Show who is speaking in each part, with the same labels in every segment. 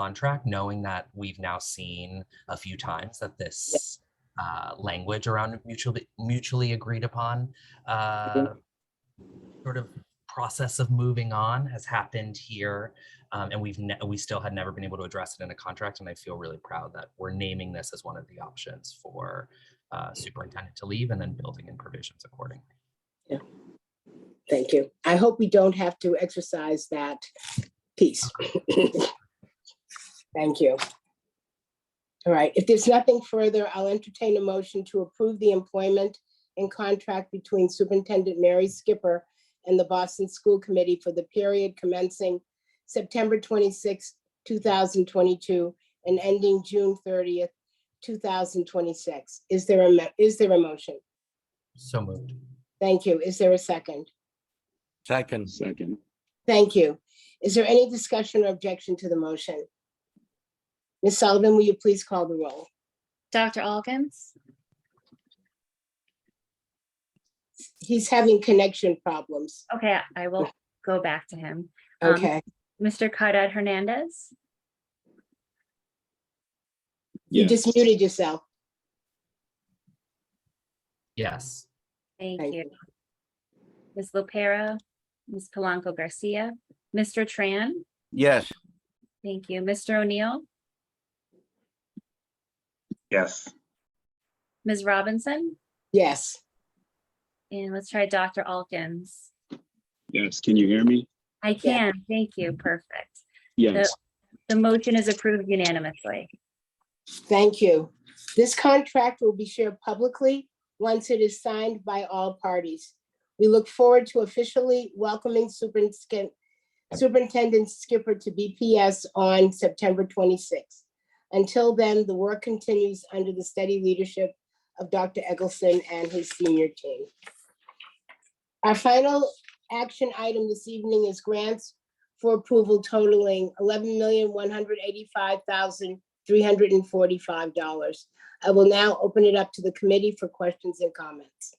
Speaker 1: contract, knowing that we've now seen a few times that this uh, language around mutually mutually agreed upon uh, sort of process of moving on has happened here, um, and we've ne- we still had never been able to address it in a contract. And I feel really proud that we're naming this as one of the options for uh, superintendent to leave, and then building in provisions accordingly.
Speaker 2: Thank you. I hope we don't have to exercise that piece. Thank you. All right, if there's nothing further, I'll entertain a motion to approve the employment and contract between Superintendent Mary Skipper and the Boston School Committee for the period commencing September 26, 2022, and ending June 30th, 2026. Is there a, mo- is there a motion?
Speaker 1: So moved.
Speaker 2: Thank you. Is there a second?
Speaker 3: Second,
Speaker 4: Second,
Speaker 2: Thank you. Is there any discussion or objection to the motion? Ms. Sullivan, will you please call the roll?
Speaker 5: Dr. Alkins,
Speaker 2: He's having connection problems.
Speaker 5: okay, I will go back to him. Um,
Speaker 2: Okay,
Speaker 5: Mr. Caudad Hernandez,
Speaker 2: you
Speaker 4: yes,
Speaker 2: just muted yourself.
Speaker 1: Yes.
Speaker 5: thank
Speaker 2: Thank
Speaker 5: you. Ms. Lopera, Ms. Polanco Garcia, Mr. Tran,
Speaker 3: yes,
Speaker 5: thank you. Mr. O'Neill,
Speaker 6: yes,
Speaker 5: Ms. Robinson,
Speaker 2: Yes,
Speaker 5: and let's try Dr. Alkins.
Speaker 4: yes. Can you hear me?
Speaker 5: I
Speaker 2: Yeah.
Speaker 5: can, thank you, perfect.
Speaker 4: Yes,
Speaker 5: The motion is approved unanimously.
Speaker 2: thank you. This contract will be shared publicly once it is signed by all parties. We look forward to officially welcoming Superin- Skin- Superintendent Skipper to BPS on September 26th. Until then, the work continues under the steady leadership of Dr. Eggleston and his senior team. Our final action item this evening is grants for approval totaling $11,185,345. I will now open it up to the committee for questions and comments.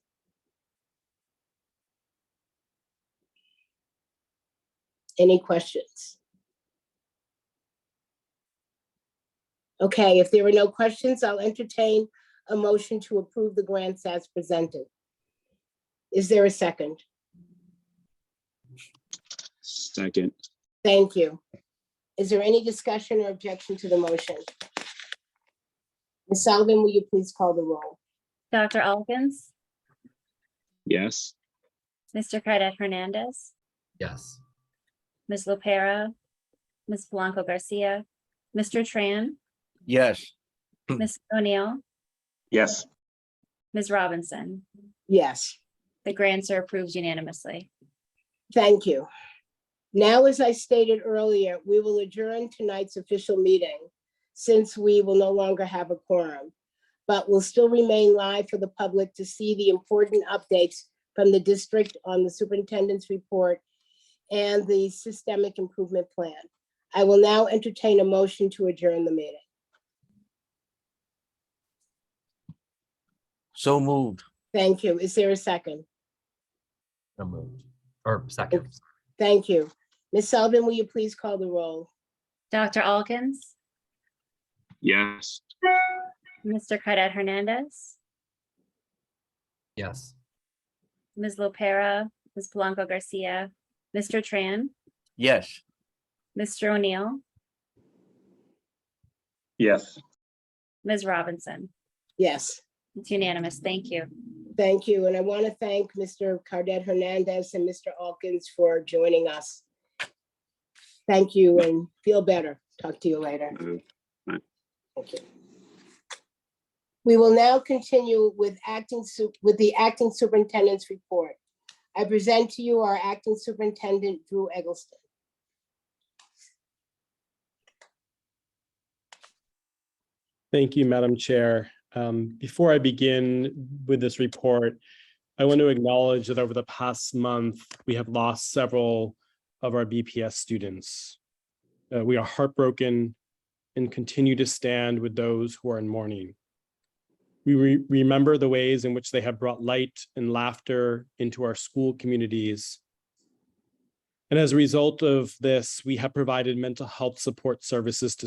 Speaker 2: Any questions? Okay, if there are no questions, I'll entertain a motion to approve the grants as presented. Is there a second?
Speaker 4: second,
Speaker 2: Thank you. Is there any discussion or objection to the motion? Ms. Sullivan, will you please call the roll?
Speaker 5: Dr. Alkins,
Speaker 4: yes,
Speaker 5: Mr. Caudad Hernandez,
Speaker 1: Yes.
Speaker 5: Ms. Lopera, Ms. Polanco Garcia, Mr. Tran,
Speaker 3: yes,
Speaker 5: Ms. O'Neill,
Speaker 6: yes,
Speaker 5: Ms. Robinson.
Speaker 2: Yes.
Speaker 5: The grants are approved unanimously.
Speaker 2: Thank you. Now, as I stated earlier, we will adjourn tonight's official meeting since we will no longer have a quorum, but will still remain live for the public to see the important updates from the district on the superintendent's report and the systemic improvement plan. I will now entertain a motion to adjourn the meeting.
Speaker 3: so moved,
Speaker 2: Thank you. Is there a second?
Speaker 1: So moved. Or second.
Speaker 2: Thank you. Ms. Sullivan, will you please call the roll?
Speaker 5: Dr. Alkins,
Speaker 4: yes.
Speaker 5: Mr. Cadet Hernandez,
Speaker 1: Yes.
Speaker 5: Ms. Lopera, Ms. Polanco Garcia, Mr. Tran,
Speaker 3: yes.
Speaker 5: Mr. O'Neill,
Speaker 6: yes.
Speaker 5: Ms. Robinson.
Speaker 2: Yes.
Speaker 5: It's unanimous. Thank you.
Speaker 2: Thank you, and I want to thank Mr. Cardet Hernandez and Mr. Alkins for joining us. Thank you and feel better. Talk to you later.
Speaker 4: Uh, bye.
Speaker 2: Thank you. We will now continue with acting, su- with the acting superintendent's report. I present to you our acting superintendent, Drew Eggleston.
Speaker 7: Thank you, Madam Chair. Um, Before I begin with this report, I want to acknowledge that over the past month, we have lost several of our BPS students. Uh, We are heartbroken and continue to stand with those who are in mourning. We re- remember the ways in which they have brought light and laughter into our school communities. And as a result of this, we have provided mental health support services to